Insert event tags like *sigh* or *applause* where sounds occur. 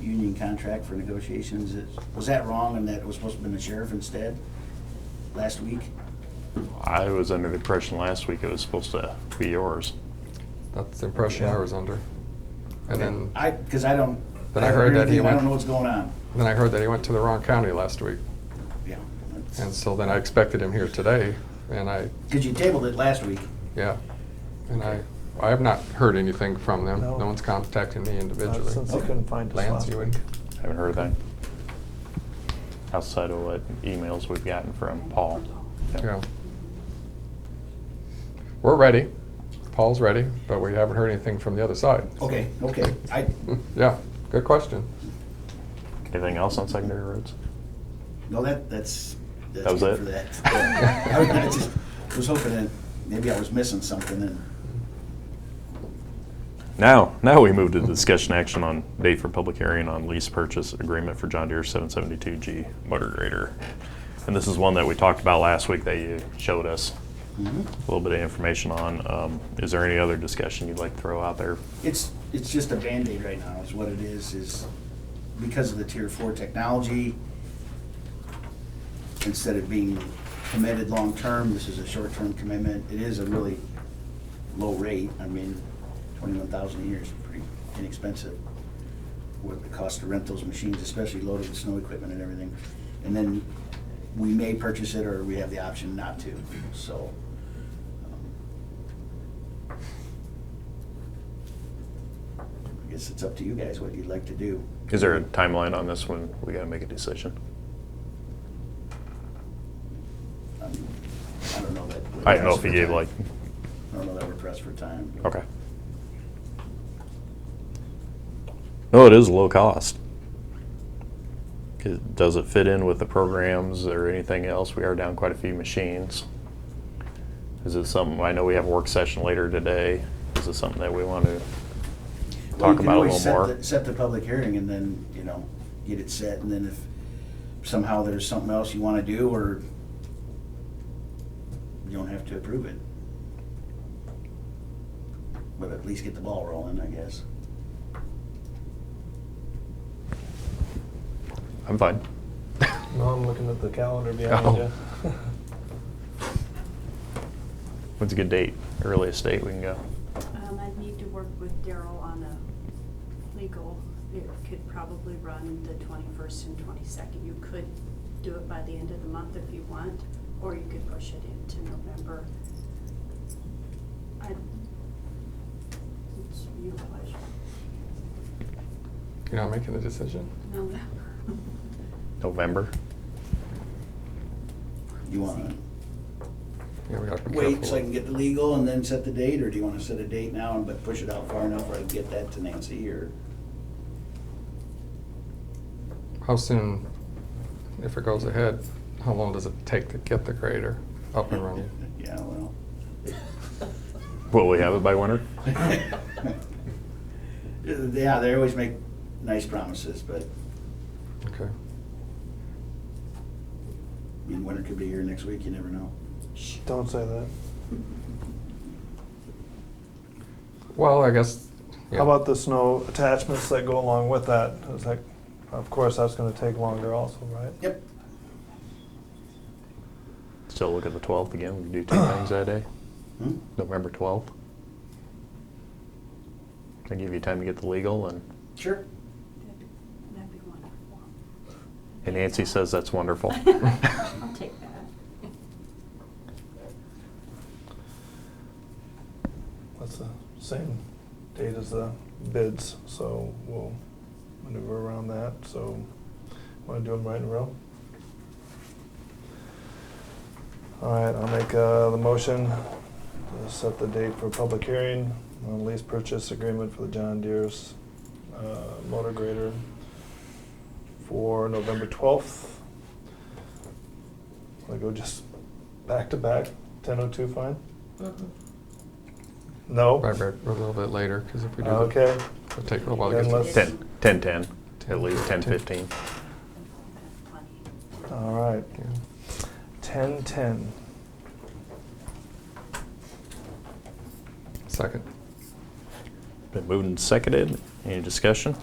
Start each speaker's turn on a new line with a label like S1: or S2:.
S1: union contract for negotiations. Is- Was that wrong and that it was supposed to have been the sheriff instead last week?
S2: I was under the impression last week it was supposed to be yours.
S3: That's the impression I was under. And then,
S1: I, because I don't.
S3: But I heard that he
S1: I don't
S3: went-
S1: know what's going on.
S3: then I heard that he went to the wrong county last week.
S1: Yeah. that's-
S3: And so then I expected him here today, and I,
S1: Because you tabled it last week.
S3: yeah. And I, I have not heard anything from them.
S4: No.
S3: No one's contacted me individually.
S4: Since they couldn't find us
S3: Lance,
S4: last
S3: you
S4: week.
S3: would,
S2: Haven't heard that. Outside of what emails we've gotten from Paul.
S3: yeah. We're ready. Paul's ready, but we haven't heard anything from the other side.
S1: Okay, okay. I,
S3: *laughs* Yeah, good question.
S2: Anything else on secondary roads?
S1: no, that, that's,
S2: That
S1: that's
S2: was
S1: good
S2: it?
S1: for that. *laughs* Yeah. I was- I just was hoping that maybe I was missing something and,
S2: Now, now we move to discussion action on date for public hearing on lease purchase agreement for John Deere 772G motor grader. And this is one that we talked about last week that you showed us
S3: Mm-hmm.
S1: Mhm.
S2: a little bit of information on. Um, Is there any other discussion you'd like to throw out there?
S1: It's, it's just a Band-Aid right now, is what it is, is because of the tier four technology, instead of being committed long-term, this is a short-term commitment. It is a really low rate. I mean, twenty-one thousand a year is pretty inexpensive. What the cost to rent those machines, especially loaded with snow equipment and everything. And then we may purchase it or we have the option not to, so. um, I guess it's up to you guys what you'd like to do. Um,
S2: Is there a timeline on this one? We gotta make a decision.
S1: I mean, I don't know that. we're
S2: I don't know if
S1: pressed
S2: you
S1: for
S2: gave
S1: time.
S2: like,
S1: I don't know that we're pressed for time.
S2: okay. No, it is low cost. 'Cause Does it fit in with the programs or anything else? We are down quite a few machines. Is it something, I know we have a work session later today. Is it something that we want to
S1: Well, you
S2: talk
S1: can
S2: about a
S1: always set
S2: little more?
S1: the- Set the public hearing and then, you know, get it set, and then if somehow there's something else you wanna do, or you don't have to approve it. But at least get the ball rolling, I guess.
S2: I'm fine.
S4: No, I'm looking at the calendar behind
S2: Oh.
S4: you.
S2: What's a good date, earliest date we can go?
S5: Um, I'd need to work with Daryl on a legal, it could probably run the twenty-first and twenty-second. You could do it by the end of the month if you want, or you could push it into November. I, it's your pleasure.
S3: You're not making the decision?
S5: November.
S2: November?
S1: You wanna
S3: Yeah, we gotta be
S1: wait
S3: careful.
S1: so I can get the legal and then set the date, or do you wanna set a date now and but push it out far enough where I can get that to Nancy, or?
S3: How soon, if it goes ahead, how long does it take to get the grader up and
S2: *laughs*
S3: running?
S1: *laughs* Yeah, well.
S2: Will we have it by winter?
S1: *laughs* Yeah, they always make nice promises, but
S3: Okay.
S1: I mean, winter could be here next week, you never know.
S4: Don't say that.
S3: Well, I guess. yeah.
S4: How about the snow attachments that go along with that? It's like, of course, that's gonna take longer also, right?
S1: Yep.
S2: Still look at the 12th again, we can do two things that day.
S1: Hmm?
S2: November 12th. I give you time to get the legal, and,
S1: Sure.
S5: That'd be- That'd be wonderful.
S2: and Nancy says that's wonderful.
S5: *laughs* I'll take that.
S4: That's the same date as the bids, so we'll maneuver around that, so wanna do them right in a row? All right, I'll make, uh, the motion to set the date for public hearing on lease purchase agreement for the John Deere's, uh, motor grader for November twelfth. I go just back to back, ten oh two fine? No?
S3: Right, right, a little bit later, because if we do. the-
S4: Okay.
S3: It'll take a while to
S4: Then
S3: get.
S4: let's-
S3: the-
S2: 10, 10, 10, at least 10, 15.
S5: Plenty.
S4: All right,
S3: yeah.
S4: ten ten.
S3: Second.
S2: Been moved and seconded. Any discussion?